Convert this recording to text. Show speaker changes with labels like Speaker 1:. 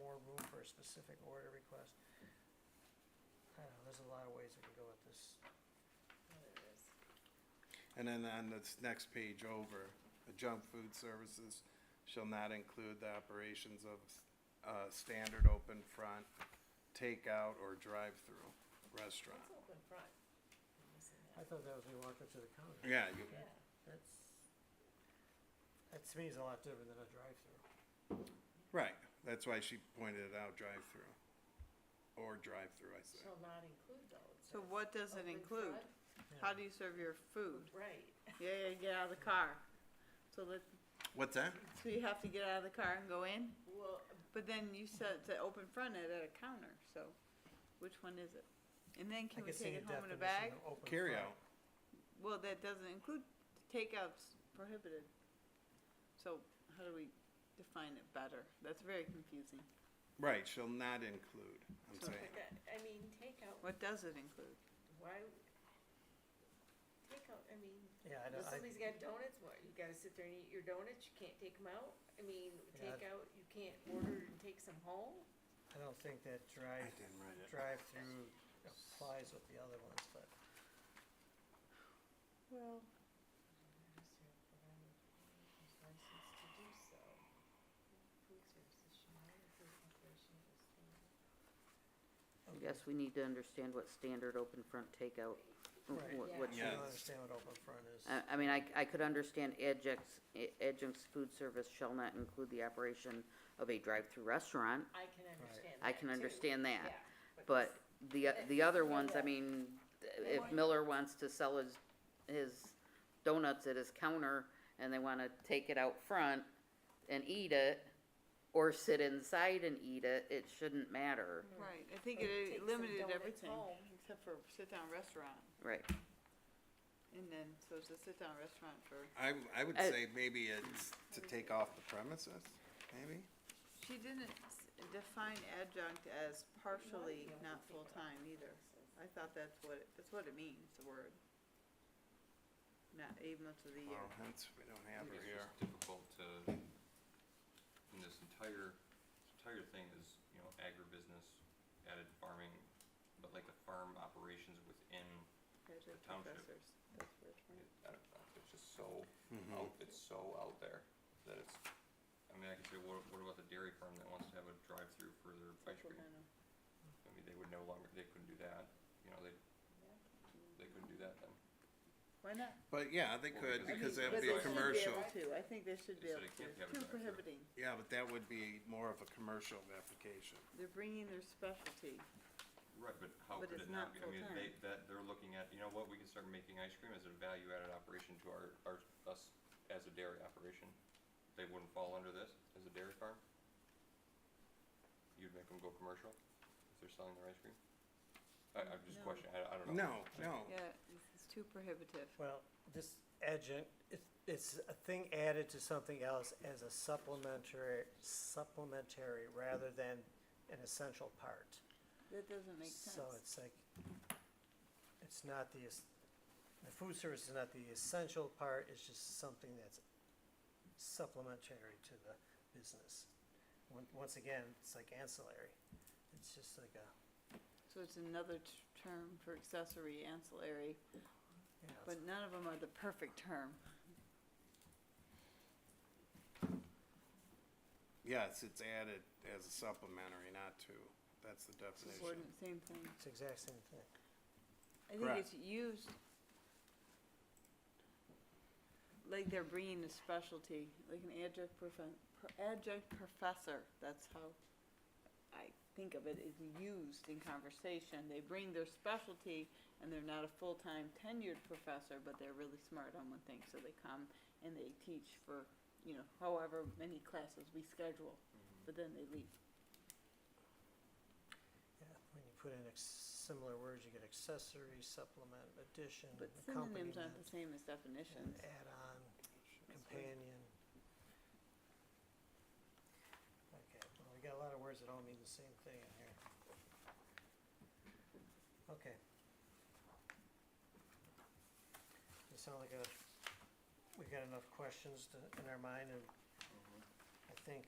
Speaker 1: a specific order request. I don't know, there's a lot of ways we can go with this.
Speaker 2: And then on this next page over, the junk food services shall not include the operations of, uh, standard open front, takeout or drive-through restaurant.
Speaker 3: It's open front. I'm missing
Speaker 1: I
Speaker 3: that.
Speaker 1: thought that was when you walked up to the counter.
Speaker 2: Yeah, you,
Speaker 3: Yeah,
Speaker 1: That's, that to me is a lot different than a drive-through.
Speaker 2: right, that's why she pointed it out, drive-through. Or drive-through, I said.
Speaker 3: shall not include though. it
Speaker 4: So
Speaker 3: says.
Speaker 4: what does it
Speaker 3: Open
Speaker 4: include?
Speaker 3: front?
Speaker 4: How do you serve your food?
Speaker 3: Right.
Speaker 4: Yeah, yeah, get out of the car. So that,
Speaker 2: What's that?
Speaker 4: so you have to get out of the car and go in,
Speaker 3: Well,
Speaker 4: but then you said to open front it at a counter, so which one is it? And then can we take it home in a bag?
Speaker 2: Carryout.
Speaker 4: Well, that doesn't include, takeout's prohibited. So how do we define it better? That's very confusing.
Speaker 2: Right, shall not include, I'm
Speaker 4: So-
Speaker 2: saying.
Speaker 3: but that- I mean, takeout,
Speaker 4: What does it include?
Speaker 3: why? Takeout, I mean,
Speaker 1: Yeah, I
Speaker 3: if
Speaker 1: don't, I,
Speaker 3: somebody's got donuts, what, you gotta sit there and eat your donuts, you can't take them out? I mean,
Speaker 1: Yeah, I've-
Speaker 3: takeout, you can't order and take some home?
Speaker 1: I don't think that
Speaker 2: I
Speaker 1: drive,
Speaker 2: didn't write it.
Speaker 1: drive-through applies with the other ones, but
Speaker 4: Well.
Speaker 5: I guess we need to understand what standard open front takeout,
Speaker 1: Right.
Speaker 5: what,
Speaker 3: Yeah.
Speaker 5: what
Speaker 1: so you
Speaker 2: Yeah.
Speaker 5: should.
Speaker 1: don't understand what open front
Speaker 4: Uh,
Speaker 1: is.
Speaker 5: I, I mean, I, I could understand adjuncts, i- adjuncts food service shall not include the operation of a drive-through restaurant.
Speaker 3: I can understand
Speaker 5: I
Speaker 3: that
Speaker 5: can
Speaker 3: too.
Speaker 5: understand that,
Speaker 3: Yeah,
Speaker 5: but the, o- the other ones, I
Speaker 3: Yeah.
Speaker 5: mean,
Speaker 3: They
Speaker 5: if
Speaker 3: want-
Speaker 5: Miller wants to sell his, his donuts at his counter and they wanna take it out front and eat it, or sit inside and eat it, it shouldn't matter,
Speaker 4: Right, I think
Speaker 3: Or take
Speaker 4: it
Speaker 3: some
Speaker 4: limited
Speaker 3: donuts
Speaker 4: everything,
Speaker 3: home.
Speaker 4: except for sit-down restaurant.
Speaker 5: right?
Speaker 4: And then, so it's a sit-down restaurant for,
Speaker 2: I, I would
Speaker 5: Uh,
Speaker 2: say maybe it's to take off the premises, maybe?
Speaker 4: she didn't s- define adjunct as partially not full-time either. I thought that's what, it- that's what it means, the word. Not eight months of the
Speaker 2: Well,
Speaker 4: year.
Speaker 2: hence, we don't have her
Speaker 6: It's
Speaker 2: here.
Speaker 6: just difficult to, and this entire, this entire thing is, you know, agribusiness, added farming, but like the farm operations within,
Speaker 4: Adjunct
Speaker 6: township.
Speaker 4: professors, that's where it's from.
Speaker 6: it- I don't know, it's just so out, it's so out there that it's, I mean, I could say, what, what about the dairy farm that wants to have a drive-through for their ice cream?
Speaker 4: Supplemental.
Speaker 6: I mean, they would no longer, they couldn't do that, you know, they, they couldn't do that then.
Speaker 4: Why not?
Speaker 2: But yeah, they could,
Speaker 6: because
Speaker 4: I
Speaker 2: because that would
Speaker 4: mean, but
Speaker 2: be
Speaker 4: they
Speaker 2: a
Speaker 4: should
Speaker 2: commercial.
Speaker 4: able to. I think they should be able
Speaker 6: They said it
Speaker 4: to,
Speaker 6: can't have a
Speaker 4: too
Speaker 6: drive-through.
Speaker 4: prohibiting.
Speaker 2: Yeah, but that would be more of a commercial application.
Speaker 4: They're bringing their specialty.
Speaker 6: Right, but how
Speaker 4: But
Speaker 6: could
Speaker 4: it's
Speaker 6: it
Speaker 4: not
Speaker 6: not be, I mean,
Speaker 4: full-time.
Speaker 6: they, that, they're looking at, you know what, we can start making ice cream as a value-added operation to our, our, us as a dairy operation. They wouldn't fall under this as a dairy farm? You'd make them go commercial if they're selling their ice cream? I, I'm just
Speaker 4: No.
Speaker 6: questioning, I, I don't know.
Speaker 2: No, no.
Speaker 6: Oh.
Speaker 4: Yeah, it's- it's too prohibitive.
Speaker 1: Well, this adjunct, it's, it's a thing added to something else as a supplementary, supplementary rather than an essential part.
Speaker 4: That doesn't make sense.
Speaker 1: So it's like, it's not the, es- the food service is not the essential part, it's just something that's supplementary to the business. Once, once again, it's like ancillary, it's just like a,
Speaker 4: So it's another t- term for accessory, ancillary,
Speaker 1: you know,
Speaker 4: but none of them are the perfect term.
Speaker 2: Yes, it's added as a supplementary, not to. That's the definition.
Speaker 4: Subordinate, same thing.
Speaker 1: it's the exact same thing.
Speaker 4: I think
Speaker 2: Correct.
Speaker 4: it's used like they're bringing a specialty, like an adjunct profen- pro- adjunct professor, that's how I think of it, is used in conversation. They bring their specialty and they're not a full-time tenured professor, but they're really smart on one thing, so they come and they teach for, you know, however many classes we schedule, but then they leave.
Speaker 1: Yeah, when you put in ex- similar words, you get accessory, supplement, addition,
Speaker 4: But synonyms
Speaker 1: accompaniment,
Speaker 4: aren't the same as
Speaker 1: and
Speaker 4: definitions.
Speaker 1: add-on, companion. Okay, well, we got a lot of words that all mean the same thing in here. Okay. Does it sound like a, we got enough questions to, in our mind, and I think